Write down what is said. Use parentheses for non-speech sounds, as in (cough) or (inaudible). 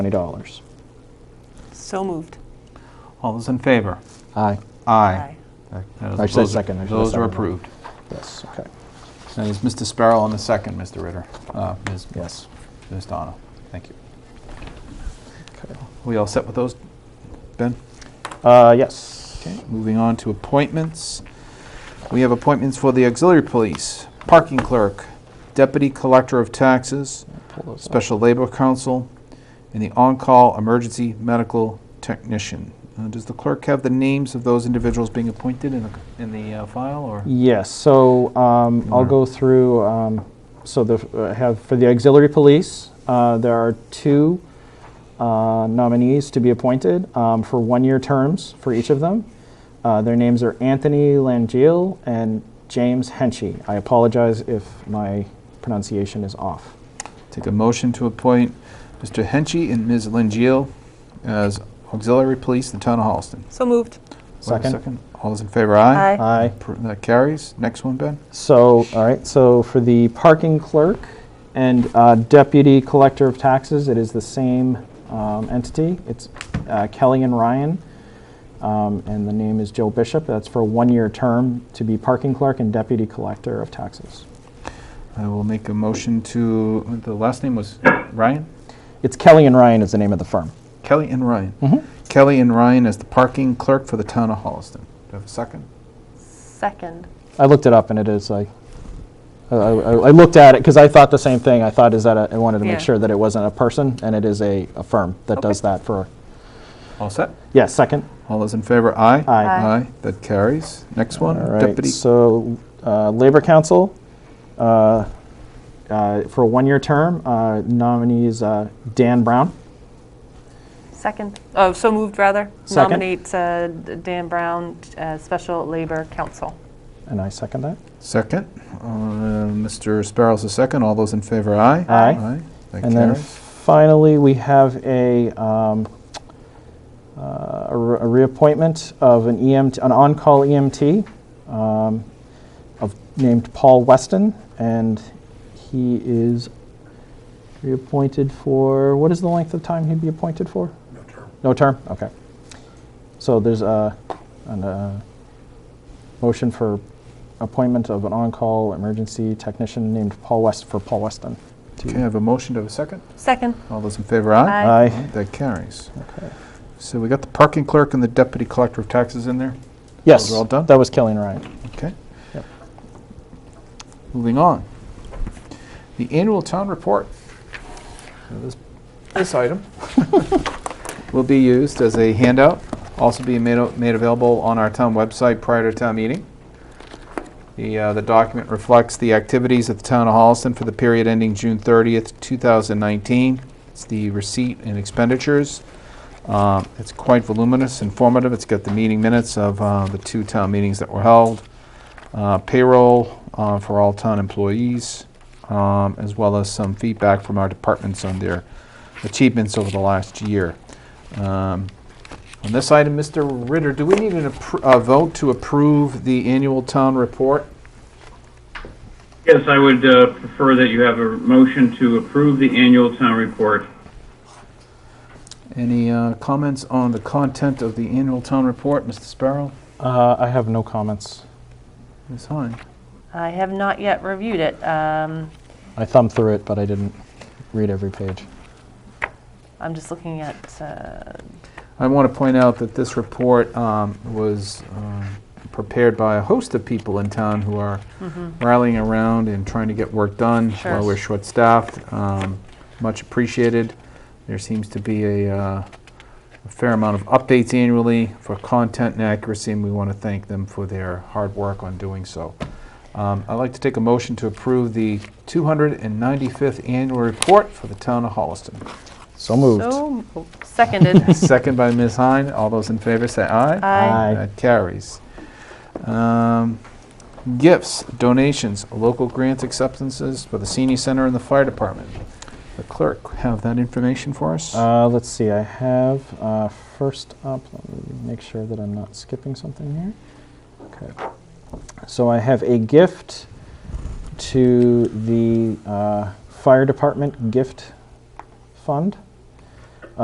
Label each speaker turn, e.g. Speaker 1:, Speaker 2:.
Speaker 1: $20.
Speaker 2: So moved.
Speaker 3: All those in favor?
Speaker 1: Aye.
Speaker 3: Aye. Those-
Speaker 1: I said
Speaker 3: those-
Speaker 1: second, I should have
Speaker 3: Those are
Speaker 1: seconded.
Speaker 3: approved.
Speaker 1: Yes, okay.
Speaker 3: And is Mr. Sparrow on the second, Mr. Ritter? Uh, Ms.
Speaker 1: Yes.
Speaker 3: Ms. Dono, thank you.
Speaker 1: Okay.
Speaker 3: We all set with those, Ben?
Speaker 1: Uh, Yes.
Speaker 3: Okay, moving on to appointments. We have appointments for the auxiliary police, parking clerk, deputy collector of taxes,
Speaker 1: Pull those up.
Speaker 3: special labor counsel, and the on-call emergency medical technician. Uh, Does the clerk have the names of those individuals being appointed in the, in the uh, file, or?
Speaker 1: Yes, so um, I'll
Speaker 3: Mhm.
Speaker 1: go through, um, so the, I have, for the auxiliary police, uh, there are two uh, nominees to be appointed um, for one-year terms for each of them. Uh, Their names are Anthony Langill and James Henchy. I apologize if my pronunciation is off.
Speaker 3: Take a motion to appoint Mr. Henchy and Ms. Lingeal as auxiliary police in the town of Holliston.
Speaker 2: So moved.
Speaker 3: Do I have a
Speaker 1: Second?
Speaker 3: All those in favor, aye?
Speaker 2: Aye.
Speaker 1: Aye.
Speaker 3: Appro- That carries. Next one, Ben?
Speaker 1: So, all right, so for the parking clerk and uh, deputy collector of taxes, it is the same um, entity. It's uh, Kelly and Ryan, um, and the name is Joe Bishop. That's for a one-year term to be parking clerk and deputy collector of taxes.
Speaker 3: I will make a motion to, the last name was Ryan?
Speaker 1: It's Kelly and Ryan is the name of the firm.
Speaker 3: Kelly and Ryan.
Speaker 1: Mhm.
Speaker 3: Kelly and Ryan as the parking clerk for the town of Holliston. Do I have a second?
Speaker 2: Second.
Speaker 1: I looked it up, and it is like, I I- I looked at it because I thought the same thing. I thought is that, a- I wanted to
Speaker 2: Yeah.
Speaker 1: make sure that it wasn't a person, and it is a a firm that does that for,
Speaker 3: All set?
Speaker 1: yeah, second?
Speaker 3: All those in favor, aye?
Speaker 1: Aye.
Speaker 2: Aye.
Speaker 3: Aye, that carries. Next one,
Speaker 1: All right,
Speaker 3: deputy.
Speaker 1: so uh, Labor Council, uh, uh, for a one-year term, uh, nominee is uh, Dan Brown.
Speaker 2: Second. Oh, so moved, rather.
Speaker 1: Second.
Speaker 2: Nominate uh, D- Dan Brown, uh, Special Labor Council.
Speaker 1: And I second that.
Speaker 3: Second. Uh, Mr. Sparrow's the second. All those in favor, aye?
Speaker 1: Aye.
Speaker 3: Aye, that
Speaker 1: And then
Speaker 3: carries.
Speaker 1: finally, we have a, um, uh, a re- a reappointment of an EMT, an on-call EMT um, of, named Paul Weston, and he is reappointed for, what is the length of time he'd be appointed for? No term. No term, okay. So there's a, an, uh, motion for appointment of an on-call emergency technician named Paul West, for Paul Weston. to-
Speaker 3: Okay, I have a motion. to have a second?
Speaker 2: Second.
Speaker 3: All those in favor, aye?
Speaker 2: Aye.
Speaker 1: Aye.
Speaker 3: That carries.
Speaker 1: Okay.
Speaker 3: So we got the parking clerk and the deputy collector of taxes in there?
Speaker 1: Yes.
Speaker 3: Those are all done?
Speaker 1: That was Kelly and Ryan.
Speaker 3: Okay.
Speaker 1: Yep.
Speaker 3: Moving on. The annual town report. Now, This this item (laughs) will be used as a handout, also being made o- made available on our town website prior to town meeting. The uh, the document reflects the activities of the town of Holliston for the period ending June 30th, 2019. It's the receipt and expenditures. Um, It's quite voluminous, informative. It's got the meeting minutes of uh, the two town meetings that were held, uh, payroll uh, for all town employees, um, as well as some feedback from our departments on their achievements over the last year. Um, On this item, Mr. Ritter, do we need an appro- a vote to approve the annual town report?
Speaker 4: Yes, I would uh, prefer that you have a motion to approve the annual town report.
Speaker 3: Any uh, comments on the content of the annual town report, Mr. Sparrow?
Speaker 1: Uh, I have no comments.
Speaker 3: Ms. Hine?
Speaker 2: I have not yet reviewed it. Um,
Speaker 1: I thumbed through it, but I didn't read every page.
Speaker 2: I'm just looking at, uh,
Speaker 3: I want to point out that this report um, was um, prepared by a host of people in town who are
Speaker 2: Mm-hmm.
Speaker 3: rallying around and trying to get work done
Speaker 2: Sure.
Speaker 3: while we're short-staffed. Um, Much appreciated. There seems to be a uh, a fair amount of updates annually for content and accuracy, and we want to thank them for their hard work on doing so. Um, I'd like to take a motion to approve the 295th annual report for the town of Holliston.
Speaker 1: So moved.
Speaker 2: so, oh,
Speaker 1: (laughs)
Speaker 2: seconded.
Speaker 3: Second by Ms. Hine. All those in favor say aye.
Speaker 2: Aye.
Speaker 1: Aye.
Speaker 3: That carries. Um, Gifts, donations, local grant acceptances for the senior center and the fire department. The clerk, have that information for us?
Speaker 1: Uh, let's see, I have, uh, first up, let me make sure that I'm not skipping something here. Okay. So I have a gift to the uh, Fire Department Gift Fund.